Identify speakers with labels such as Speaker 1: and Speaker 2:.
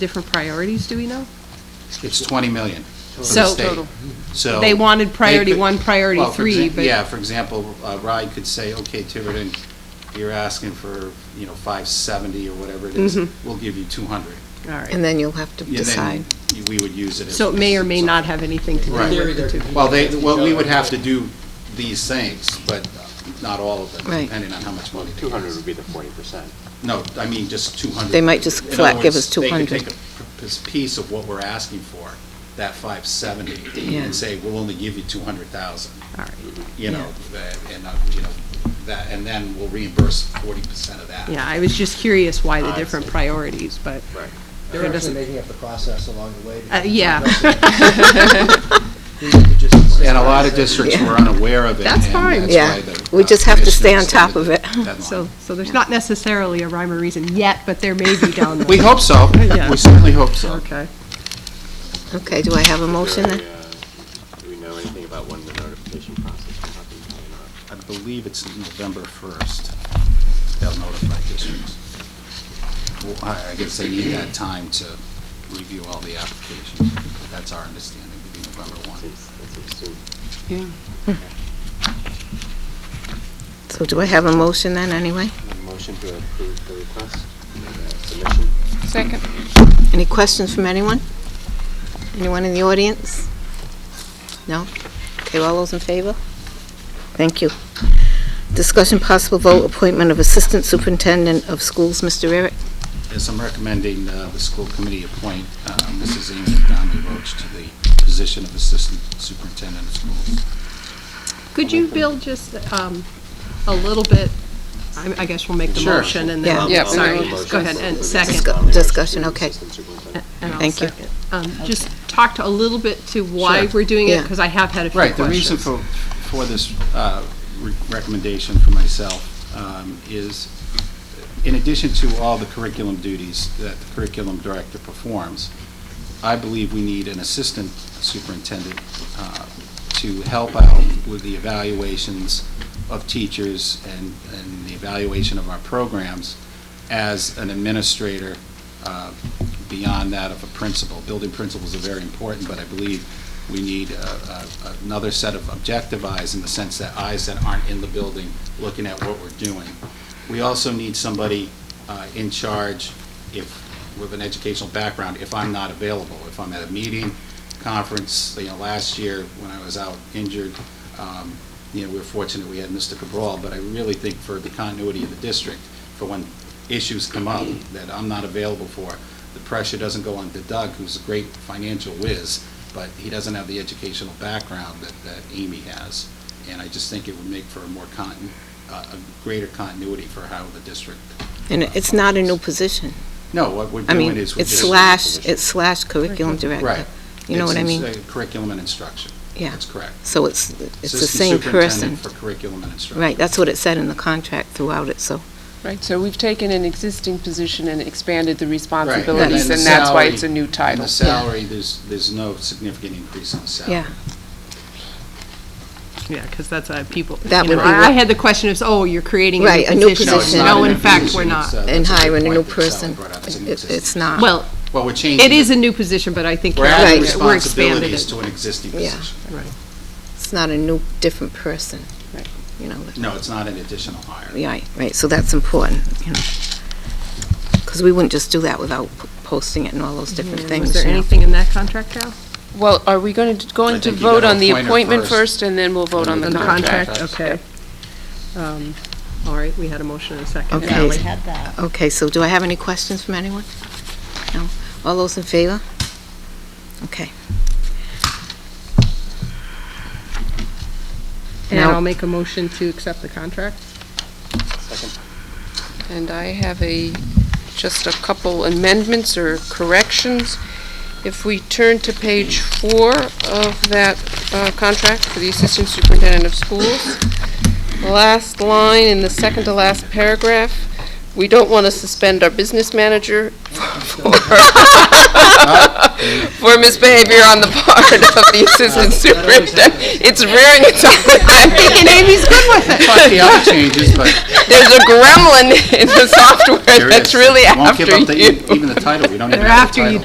Speaker 1: different priorities, do we know?
Speaker 2: It's 20 million for the
Speaker 1: So-
Speaker 2: state.
Speaker 1: Total.
Speaker 2: So.
Speaker 1: They wanted
Speaker 2: they
Speaker 1: priority
Speaker 2: could-
Speaker 1: one, priority
Speaker 2: well, for
Speaker 1: three,
Speaker 2: exa-
Speaker 1: but-
Speaker 2: Yeah, for example, uh, Ride could say, okay, Tiverton, you're asking for, you know, 570 or whatever it is,
Speaker 1: Mhm.
Speaker 2: we'll give you 200.
Speaker 1: All right.
Speaker 3: And then you'll have to
Speaker 2: Yeah,
Speaker 3: decide.
Speaker 2: then you- we would use it. as-
Speaker 1: So it may or may not have anything to do
Speaker 2: Right.
Speaker 1: with the two.
Speaker 2: Well, they, well, we would have to do these things, but not all of them,
Speaker 3: Right.
Speaker 2: depending on how much money they give
Speaker 4: 200
Speaker 2: us.
Speaker 4: would be the 40%.
Speaker 2: No, I mean, just 200.
Speaker 3: They might just
Speaker 2: In other
Speaker 3: flat give
Speaker 2: words,
Speaker 3: us
Speaker 2: they could
Speaker 3: 200.
Speaker 2: take a p- p- piece of what we're asking for, that 570,
Speaker 3: Yeah.
Speaker 2: and say, we'll only give you 200,000,
Speaker 1: All right.
Speaker 2: you know, uh, and, uh, you know, that, and then we'll reimburse 40% of that.
Speaker 1: Yeah, I was just curious why
Speaker 2: Oh,
Speaker 1: the different priorities, but
Speaker 5: They're actually making up the process along the way.
Speaker 1: Uh, yeah.
Speaker 2: And a lot of districts were unaware of it.
Speaker 1: That's
Speaker 2: and
Speaker 1: fine.
Speaker 2: that's
Speaker 3: Yeah.
Speaker 2: why the,
Speaker 3: We
Speaker 2: uh,
Speaker 3: just have to stay on
Speaker 2: commission
Speaker 3: top of it.
Speaker 2: extended the deadline.
Speaker 1: so, so there's not necessarily a rhyme or reason yet, but there may be down the.
Speaker 2: We hope so.
Speaker 1: Yeah.
Speaker 2: We certainly hope so.
Speaker 1: Okay.
Speaker 3: Okay, do I have a motion
Speaker 4: Do
Speaker 3: then?
Speaker 4: we, uh, do we know anything about when the notification process will happen? Probably not.
Speaker 2: I believe it's November 1st. They'll notify districts. Well, I I guess they need that time to review all the applications. That's our understanding, would be November 1.
Speaker 4: Seems- That seems soon.
Speaker 3: So do I have a motion then, anyway?
Speaker 4: Motion to approve the request, uh, submission.
Speaker 6: Second.
Speaker 3: Any questions from anyone? Anyone in the audience? No? Okay, all those in favor? Thank you. Discussion possible vote appointment of Assistant Superintendent of Schools, Mr. Eric.
Speaker 2: Yes, I'm recommending uh, the school committee appoint uh, Mrs. Amy Donnelly Roach to the position of Assistant Superintendent of Schools.
Speaker 1: Could you, Bill, just um, a little bit, I I guess we'll make the
Speaker 2: Sure.
Speaker 1: motion and then,
Speaker 3: Yeah.
Speaker 4: Yeah,
Speaker 1: sorry,
Speaker 4: we will.
Speaker 1: go ahead, and second.
Speaker 3: Discu- Discussion, okay.
Speaker 4: Assistant superintendent.
Speaker 1: and I'll
Speaker 3: Thank you.
Speaker 1: second. Um, Just talk to a little bit to why
Speaker 2: Sure.
Speaker 1: we're doing it,
Speaker 3: Yeah.
Speaker 1: because I have had a few
Speaker 2: Right,
Speaker 1: questions.
Speaker 2: the reason for, for this uh, re- recommendation for myself um, is, in addition to all the curriculum duties that the curriculum director performs, I believe we need an assistant superintendent uh, to help out with the evaluations of teachers and, and the evaluation of our programs as an administrator uh, beyond that of a principal. Building principles are very important, but I believe we need uh, uh, another set of objective eyes in the sense that eyes that aren't in the building looking at what we're doing. We also need somebody uh, in charge if, with an educational background, if I'm not available, if I'm at a meeting, conference, you know, last year when I was out injured, um, you know, we were fortunate we had Mr. Cabral, but I really think for the continuity of the district, for when issues come up that I'm not available for, the pressure doesn't go on to Doug, who's a great financial whiz, but he doesn't have the educational background that, that Amy has. And I just think it would make for a more continu, uh, a greater continuity for how the district.
Speaker 3: And it's not a new position.
Speaker 2: No, what we're
Speaker 3: I
Speaker 2: doing
Speaker 3: mean,
Speaker 2: is. we're
Speaker 3: it's
Speaker 2: just-
Speaker 3: slash, it's slash curriculum director.
Speaker 2: Right.
Speaker 3: You know
Speaker 2: It's
Speaker 3: what I
Speaker 2: in-
Speaker 3: mean?
Speaker 2: uh, Curriculum and instruction.
Speaker 3: Yeah.
Speaker 2: That's correct.
Speaker 3: So it's, it's the
Speaker 2: Assistant
Speaker 3: same person.
Speaker 2: Superintendent for curriculum and instruction.
Speaker 3: Right, that's what it said in the contract throughout it, so,
Speaker 6: Right, so we've taken an existing position and expanded the
Speaker 2: Right,
Speaker 6: responsibilities,
Speaker 2: the
Speaker 6: and that's why it's a
Speaker 2: salary-
Speaker 6: new
Speaker 2: and
Speaker 6: title.
Speaker 2: the salary, there's, there's no significant increase in the salary.
Speaker 3: yeah.
Speaker 1: Yeah, because that's, uh, people, you
Speaker 3: That
Speaker 1: know,
Speaker 3: would be
Speaker 1: I I
Speaker 3: what-
Speaker 1: had the question of, oh, you're creating
Speaker 3: Right,
Speaker 1: a
Speaker 3: a new
Speaker 1: new position.
Speaker 2: No, it's
Speaker 3: position. uh,
Speaker 2: not
Speaker 1: No,
Speaker 2: an
Speaker 1: in fact,
Speaker 2: increase,
Speaker 1: we're
Speaker 2: it's,
Speaker 1: not.
Speaker 2: uh, that's
Speaker 3: And
Speaker 2: a good
Speaker 3: hiring a
Speaker 2: point
Speaker 3: new
Speaker 2: that Sally
Speaker 3: person.
Speaker 2: brought up. It's an
Speaker 3: It- It's
Speaker 2: existing-
Speaker 3: not.
Speaker 1: Well,
Speaker 2: Well, we're changing.
Speaker 1: it is a new position, but I think
Speaker 2: We're
Speaker 1: you're
Speaker 2: adding
Speaker 1: right, we're expanded
Speaker 2: responsibilities
Speaker 1: it.
Speaker 2: to an existing
Speaker 3: Yeah.
Speaker 2: position.
Speaker 3: It's not a new, different person.
Speaker 6: Right.
Speaker 3: You know, but-
Speaker 2: No, it's not an additional hire.
Speaker 3: yeah, right, so that's important, you know. Because we wouldn't just do that without p- posting it and all those different things.
Speaker 1: Was there
Speaker 3: you know.
Speaker 1: anything in that contract, Cal?
Speaker 6: Well, are we going to,
Speaker 2: I
Speaker 6: going to
Speaker 2: think you
Speaker 6: vote
Speaker 2: gotta
Speaker 6: on the
Speaker 2: appoint her
Speaker 6: appointment
Speaker 2: first.
Speaker 6: first, and then we'll vote on the
Speaker 1: On the
Speaker 6: contract?
Speaker 1: contract, okay. Um, All right, we had a motion and a second.
Speaker 3: Okay.
Speaker 1: Ally?
Speaker 3: Okay, so do I have any questions from anyone? No? All those in favor? Okay.
Speaker 1: And
Speaker 3: Now-
Speaker 1: I'll make a motion to accept the contract.
Speaker 6: And I have a, just a couple amendments or corrections. If we turn to page four of that uh, contract for the Assistant Superintendent of Schools, last line in the second to last paragraph, we don't want to suspend our business manager for for misbehavior on the part of the assistant superintendent. It's rearing its ugly head.
Speaker 1: And Amy's good with it.
Speaker 2: Plus the other changes, but
Speaker 6: There's a gremlin in the software
Speaker 2: there is.
Speaker 6: that's really
Speaker 2: Won't
Speaker 6: after
Speaker 2: give
Speaker 6: you.
Speaker 2: up the- E Even the title, we don't even
Speaker 1: They're
Speaker 2: have
Speaker 1: after
Speaker 2: the
Speaker 1: you,
Speaker 2: title.